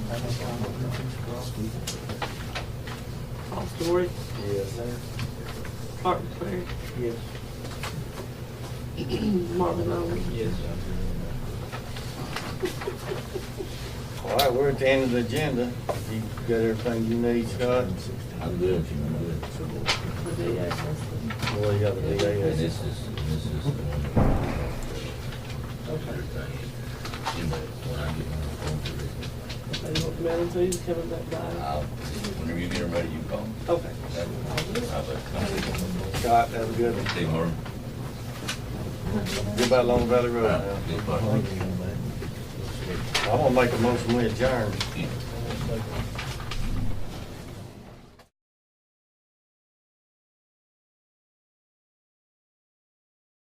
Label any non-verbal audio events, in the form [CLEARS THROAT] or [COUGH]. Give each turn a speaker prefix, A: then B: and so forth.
A: Story,
B: Yes, sir.
A: Clark McLeary,
B: Yes.
A: [CLEARS THROAT] Marvin Owens.
B: Yes. All right, we're at the end of the agenda. You got everything you need, Scott?
C: I'm
A: I
C: good, I'm good.
A: do, yes, that's
B: Well, you got the
C: And this
B: DAS.
C: is, this is. uh, the one that- You know, when I get my phone to Rick,
A: the- They want Melon too, he's coming back by.
C: I'll, whenever you get ready, you call me.
A: Okay.
C: That would- I'll let-
B: Scott, have a good one.
C: Hey, Marvin.
B: Goodbye, Long Valley Road now.
C: Good luck.
B: I'm gonna make a motion we adjourn.
C: Yeah.